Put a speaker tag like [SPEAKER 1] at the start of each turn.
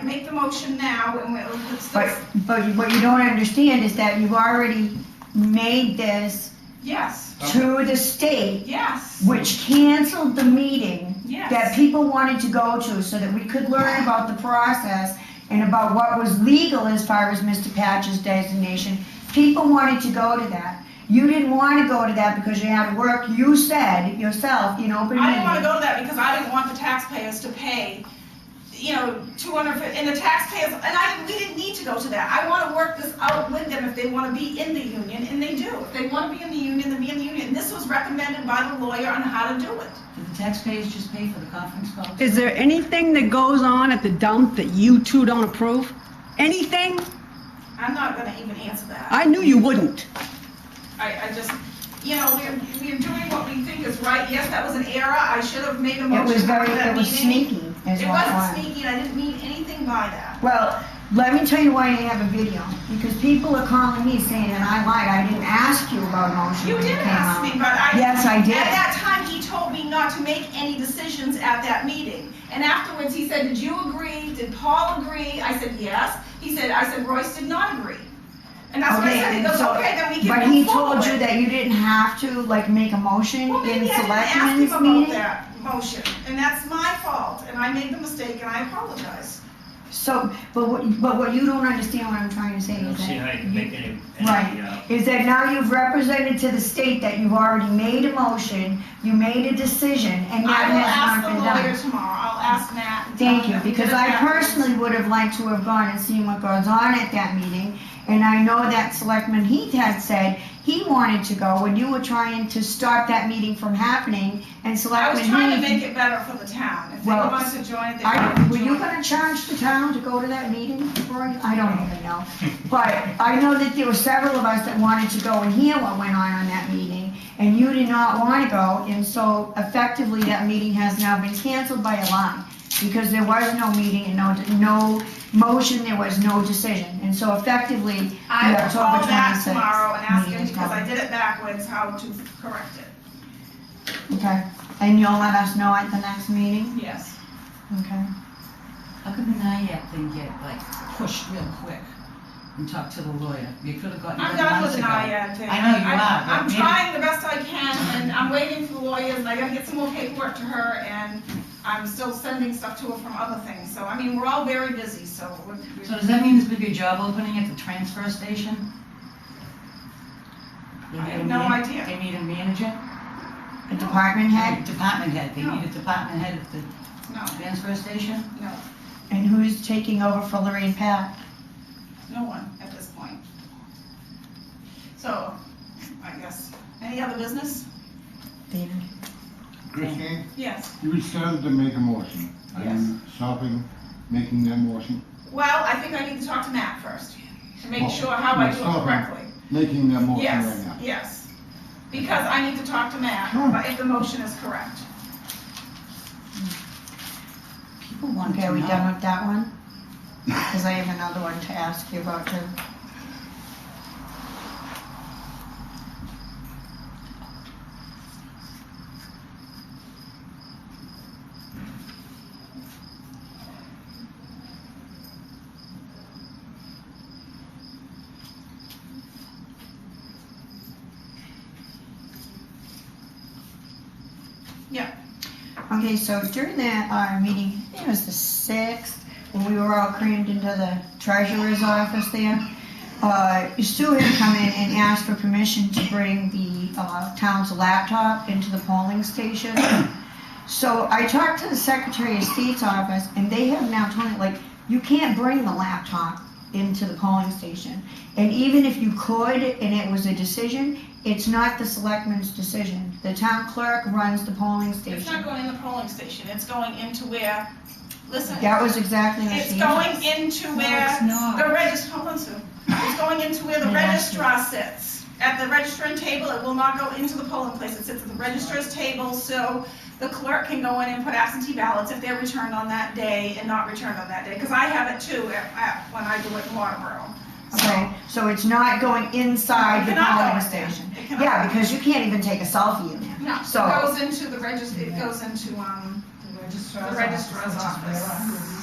[SPEAKER 1] make the motion now and we'll, it's
[SPEAKER 2] But,
[SPEAKER 1] this,
[SPEAKER 2] but what you don't understand is that you've already made this
[SPEAKER 1] yes,
[SPEAKER 2] to the state,
[SPEAKER 1] yes,
[SPEAKER 2] which canceled the meeting that
[SPEAKER 1] yes.
[SPEAKER 2] people wanted to go to so that we could learn about the process and about what was legal as far as Mr. Patch's designation. People wanted to go to that. You didn't want to go to that because you had work. You said yourself in open
[SPEAKER 1] I didn't wanna
[SPEAKER 2] meeting.
[SPEAKER 1] go to that because I didn't want the taxpayers to pay, you know, two hundred, and the taxpayers, and I, we didn't need to go to that. I wanna work this out with them if they wanna be in the union, and they do. If they wanna be in the union, then be in the union. This was recommended by the lawyer on how to do it.
[SPEAKER 3] Did the taxpayers just pay for the conference call?
[SPEAKER 4] Is there anything that goes on at the dump that you two don't approve? Anything?
[SPEAKER 1] I'm not gonna even answer that.
[SPEAKER 4] I knew you wouldn't.
[SPEAKER 1] I, I just, you know, we're, we're doing what we think is right. Yes, that was an error. I should have made a motion.
[SPEAKER 2] It was very,
[SPEAKER 1] after that
[SPEAKER 2] it was
[SPEAKER 1] meeting.
[SPEAKER 2] sneaky as
[SPEAKER 1] It
[SPEAKER 2] well.
[SPEAKER 1] wasn't sneaky. and I didn't mean anything by that.
[SPEAKER 2] Well, let me tell you why I have a video, because people are calling me saying that I lied, I didn't ask you about motion.
[SPEAKER 1] You
[SPEAKER 2] when it
[SPEAKER 1] did
[SPEAKER 2] came
[SPEAKER 1] ask
[SPEAKER 2] out.
[SPEAKER 1] me, but I.
[SPEAKER 2] Yes, I did.
[SPEAKER 1] At that time, he told me not to make any decisions at that meeting. And afterwards, he said, did you agree? Did Paul agree? I said, yes. He said, I said, Royce did not agree. And that's what I
[SPEAKER 2] Okay,
[SPEAKER 1] said. He goes,
[SPEAKER 2] so-
[SPEAKER 1] okay, then we
[SPEAKER 2] But
[SPEAKER 1] can
[SPEAKER 2] he
[SPEAKER 1] move
[SPEAKER 2] told you
[SPEAKER 1] forward.
[SPEAKER 2] that you didn't have to, like, make a motion
[SPEAKER 1] Well,
[SPEAKER 2] in
[SPEAKER 1] maybe I didn't ask him
[SPEAKER 2] selectmen's
[SPEAKER 1] about
[SPEAKER 2] meeting?
[SPEAKER 1] that motion, and that's my fault, and I made the mistake, and I apologize.
[SPEAKER 2] So, but what, but what you don't understand what I'm trying to say
[SPEAKER 5] I don't
[SPEAKER 2] is
[SPEAKER 5] see how you
[SPEAKER 2] that,
[SPEAKER 5] can make
[SPEAKER 2] you-
[SPEAKER 5] any,
[SPEAKER 2] Right.
[SPEAKER 5] any, uh,
[SPEAKER 2] is that now you've represented to the state that you've already made a motion, you made a decision, and that
[SPEAKER 1] I will
[SPEAKER 2] has
[SPEAKER 1] ask
[SPEAKER 2] not
[SPEAKER 1] the
[SPEAKER 2] been done.
[SPEAKER 1] lawyer tomorrow, I'll ask Matt. and
[SPEAKER 2] Thank
[SPEAKER 1] tell
[SPEAKER 2] you,
[SPEAKER 1] him
[SPEAKER 2] because
[SPEAKER 1] that
[SPEAKER 2] I
[SPEAKER 1] that was-
[SPEAKER 2] personally would have liked to have gone and seen what goes on at that meeting. And I know that Selectman Heath had said he wanted to go when you were trying to stop that meeting from happening and
[SPEAKER 1] I was trying to
[SPEAKER 2] Selectman
[SPEAKER 1] make
[SPEAKER 2] Heath.
[SPEAKER 1] it better for the town, if they
[SPEAKER 2] Well,
[SPEAKER 1] want to join it, they
[SPEAKER 2] I,
[SPEAKER 1] can
[SPEAKER 2] were you
[SPEAKER 1] join.
[SPEAKER 2] gonna charge the town to go to that meeting, Roy? I don't even know. But I know that there were several of us that wanted to go and hear what went on on that meeting, and you did not wanna go, and so effectively, that meeting has now been canceled by a lie, because there was no meeting and no, no motion, there was no decision, and so effectively,
[SPEAKER 1] I
[SPEAKER 2] the
[SPEAKER 1] will call
[SPEAKER 2] October
[SPEAKER 1] Matt
[SPEAKER 2] twenty-sixth.
[SPEAKER 1] tomorrow and ask him,
[SPEAKER 2] meeting is
[SPEAKER 1] because I
[SPEAKER 2] gone.
[SPEAKER 1] did it backwards, how to correct it.
[SPEAKER 2] Okay, and you'll let us know at the next meeting,
[SPEAKER 1] Yes.
[SPEAKER 2] okay?
[SPEAKER 3] How come the NIAC didn't get like pushed real quick and talk to the lawyer? You could have gotten.
[SPEAKER 1] I'm
[SPEAKER 3] it
[SPEAKER 1] done
[SPEAKER 3] months
[SPEAKER 1] with an
[SPEAKER 3] ago.
[SPEAKER 1] IAD thing.
[SPEAKER 3] I know you
[SPEAKER 1] I'm-
[SPEAKER 3] are, but
[SPEAKER 1] I'm
[SPEAKER 3] maybe-
[SPEAKER 1] trying the best I can, and I'm waiting for lawyers, and I gotta get some more paperwork to her, and I'm still sending stuff to her from other things, so, I mean, we're all very busy, so. we're- we're-
[SPEAKER 3] So does that mean there's gonna be a job opening at the transfer station? They
[SPEAKER 1] I
[SPEAKER 3] need a
[SPEAKER 1] have no
[SPEAKER 3] man-
[SPEAKER 1] idea.
[SPEAKER 3] They need a manager?
[SPEAKER 2] A department head,
[SPEAKER 3] Department head, they need a department head at the
[SPEAKER 1] No,
[SPEAKER 3] transfer station?
[SPEAKER 1] no,
[SPEAKER 2] and who's taking over for Lorraine Pat?
[SPEAKER 1] no one at this point. So, I guess, any other business?
[SPEAKER 6] Christine,
[SPEAKER 1] Yes.
[SPEAKER 6] eh? you started to make a motion. Are you stopping making that motion?
[SPEAKER 1] Well, I think I need to talk to Matt first, to make
[SPEAKER 6] Well,
[SPEAKER 1] sure how I do it
[SPEAKER 6] myself,
[SPEAKER 1] correctly.
[SPEAKER 6] Making that motion right
[SPEAKER 1] Yes,
[SPEAKER 6] now?
[SPEAKER 1] yes. Because I need to talk to Matt,
[SPEAKER 6] Sure.
[SPEAKER 1] but if the motion is correct.
[SPEAKER 3] People want
[SPEAKER 2] Okay,
[SPEAKER 3] to
[SPEAKER 2] are we
[SPEAKER 3] know.
[SPEAKER 2] done with that one? Because I have another one to ask you about too.
[SPEAKER 1] Yeah.
[SPEAKER 2] Okay, so during that, uh meeting, I think it was the sixth, when we were all crammed into the treasurer's office there, uh, Sue had come in and asked for permission to bring the, uh, town's laptop into the polling station. So I talked to the Secretary of State's office, and they have now told me, like, you can't bring the laptop into the polling station. And even if you could, and it was a decision, it's not the selectman's decision. The town clerk runs the polling station.
[SPEAKER 1] It's not going in the polling station, it's going into where, listen,
[SPEAKER 2] That was exactly what
[SPEAKER 1] it's
[SPEAKER 2] she.
[SPEAKER 1] going into where
[SPEAKER 3] it's not.
[SPEAKER 1] the regist, hold on, Sue. It's going into where the
[SPEAKER 2] Yeah, that's
[SPEAKER 1] registrar sits. At the registering table, it will not go into the polling place, it sits at the registrar's table, so the clerk can go in and put absentee ballots if they're returned on that day and not returned on that day, because I have it too at, at, when I do it in Waterboro.
[SPEAKER 2] Okay, so it's not going inside the
[SPEAKER 1] It cannot go
[SPEAKER 2] polling
[SPEAKER 1] in there.
[SPEAKER 2] station.
[SPEAKER 1] It cannot
[SPEAKER 2] Yeah,
[SPEAKER 1] go.
[SPEAKER 2] because you can't even take a selfie in there.
[SPEAKER 1] No, it
[SPEAKER 2] So-
[SPEAKER 1] goes into the regist, it goes into, um,
[SPEAKER 3] The
[SPEAKER 1] the registrar's office.